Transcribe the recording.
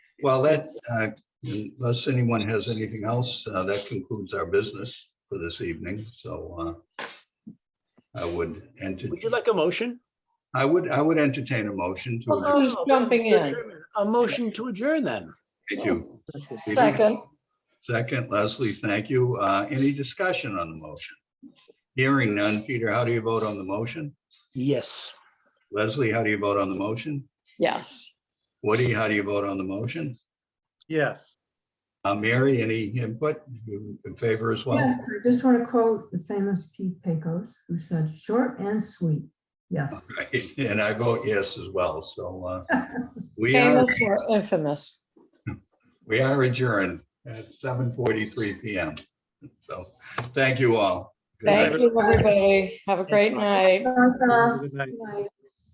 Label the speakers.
Speaker 1: Well, that, uh, unless anyone has anything else, uh, that concludes our business for this evening, so uh, I would enter,
Speaker 2: Would you like a motion?
Speaker 1: I would, I would entertain a motion to, adjourn.
Speaker 2: Oh,
Speaker 3: Who's jumping in?
Speaker 2: A motion to adjourn then.
Speaker 1: thank you.
Speaker 3: Second,
Speaker 1: Second, Leslie, thank you. Uh, Any discussion on the motion? Hearing none. Peter, how do you vote on the motion?
Speaker 2: Yes.
Speaker 1: Leslie, how do you vote on the motion?
Speaker 3: yes.
Speaker 1: Woody, how do you vote on the motion?
Speaker 4: Yes.
Speaker 1: Uh, Mary, any input You in favor as well?
Speaker 5: Yes, I just want to quote the famous Pete Pecos, who said, short and sweet. Yes.
Speaker 1: Right, And I vote yes as well, so uh, we are,
Speaker 3: Famous or infamous?
Speaker 1: we are adjourned at seven forty-three PM. So, thank you all. Good night.
Speaker 3: Thank you, everybody. Have a great night.
Speaker 5: Ta-ta.
Speaker 3: Uh,
Speaker 4: Good night.
Speaker 5: Good night.